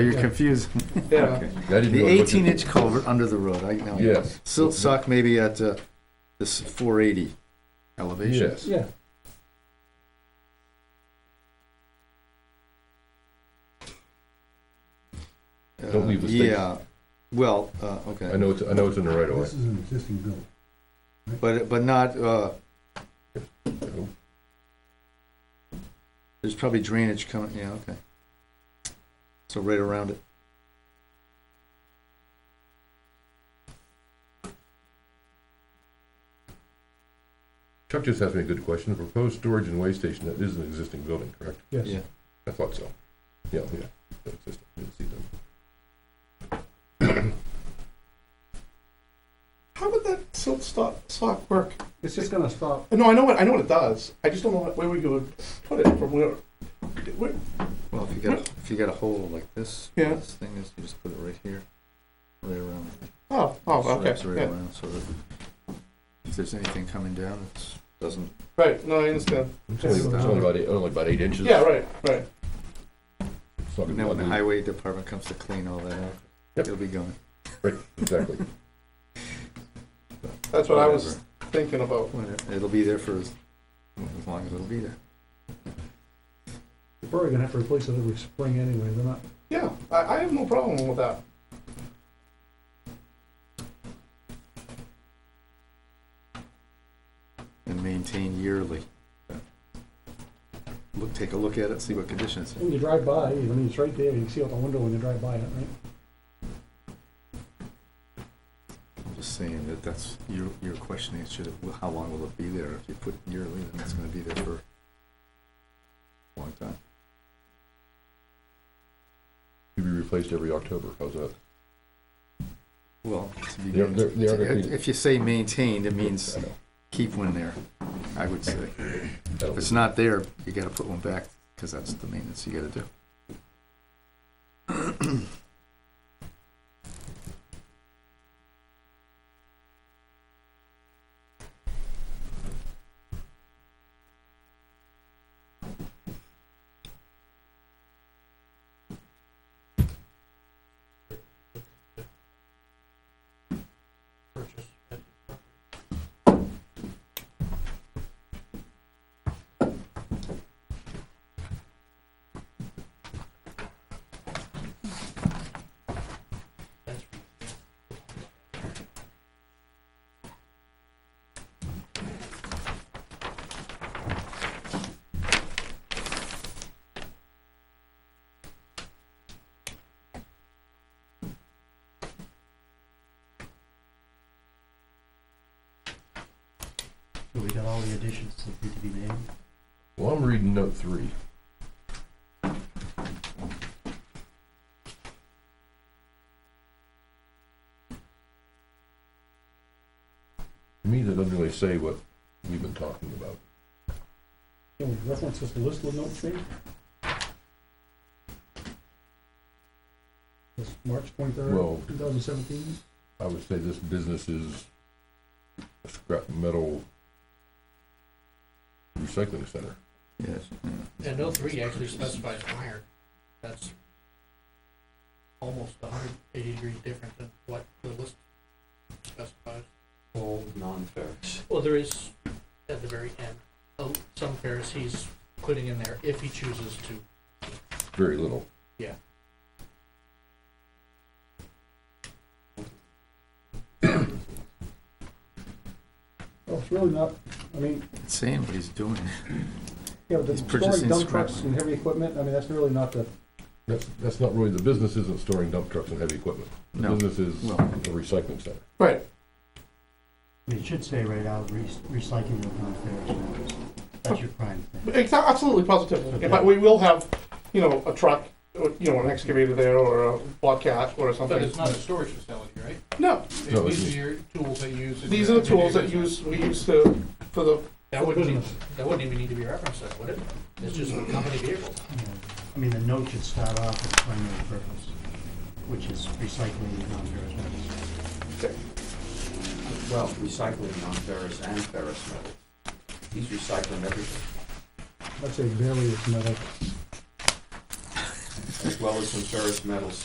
You're confused. Yeah. That The is what- what you- eighteen inch culvert under the road, I know. Yes. Silt sock maybe at uh, this four eighty elevation. Yes. Yeah. Don't leave the space. Uh, Yeah, well, uh, I okay, know, it's- I know it's in the right of way. This is an existing building. but, but not, uh, there's probably drainage coming, yeah, okay. So right around it. Chuck just asked me a good question. The proposed storage and weigh station, that is an existing building, correct? Yes. Yeah. I thought so. Yeah, yeah. That's just- I didn't see them. How would that silt stock, sock work? It's just gonna stop. No, I know what I know what it does. I just don't know what, where we would put it from where. where Well, if you got, if you got a hole like this, Yeah. this thing is, you just put it right here, right around. oh, oh, Just okay, wraps right yeah. around so that if there's anything coming down, it doesn't. right. No, I understand. It's only, it's only about eight, only about eight inches. Yeah, right, right. It's not And then gonna be when the ugly. highway department comes to clean all that up, Yep. it'll be gone. Right, exactly. That's what I was thinking about. Whatever. Whatever. It'll be there for as, as long as it'll be there. We're probably gonna have to replace it every spring anyway, they're not, Yeah, I, I have no problem with that. And maintained yearly. Look, take a look at it, see what condition it's in. when you drive by, I mean, it's right there, you can see out the window when you drive by it, right? I'm just saying that that's, your, your question is, should it, how long will it be there? If you put yearly, then it's gonna be there for a long time. To be replaced every October, how's that? Well, to be They're- they're- they are gonna maintained- be- if you say maintained, it means I know. keep one there, I would say. That'll If be- it's not there, you gotta put one back, because that's the maintenance you gotta do. We got all the additions that need to be made. Well, I'm reading note three. To me, that doesn't really say what we've been talking about. Can we reference this list with notes maybe? This March twenty-third, Well- two thousand seventeen, I would say this business is a scrap metal recycling center. Yes. And no three actually specifies iron. That's almost a hundred eighty degrees different than what the list specifies. All non-ferrous. Well, there is, at the very end, uh, some pairs he's putting in there if he chooses to. Very little. well, it's really not, I mean, It's saying what he's doing. yeah, but the He's storing purchasing dump scrap. trucks and heavy equipment, I mean, that's really not the, That's, that's not really, the business isn't storing dump trucks and heavy equipment. The No. business is Well- a recycling center. Right. It should say right out, re- recycling of non-ferrous metals. That's your prime thing. Exa- absolutely, positively. But we will have, you know, a truck, or, you know, an excavator there or a bobcat or something. But it's not a storage facility, right? no, No, it's- These are your tools that you use. in these are your the tools that everyday use we use to for the That wouldn't, even- that wouldn't even need to be referenced, then, would it? It's just a company vehicle. Yeah. I mean, the note should start off with primary purpose, which is recycling of non-ferrous metals. Well, recycling non-ferrous and ferrous metals. He's recycling everything. I'd say barely as metal. well as some ferrous metals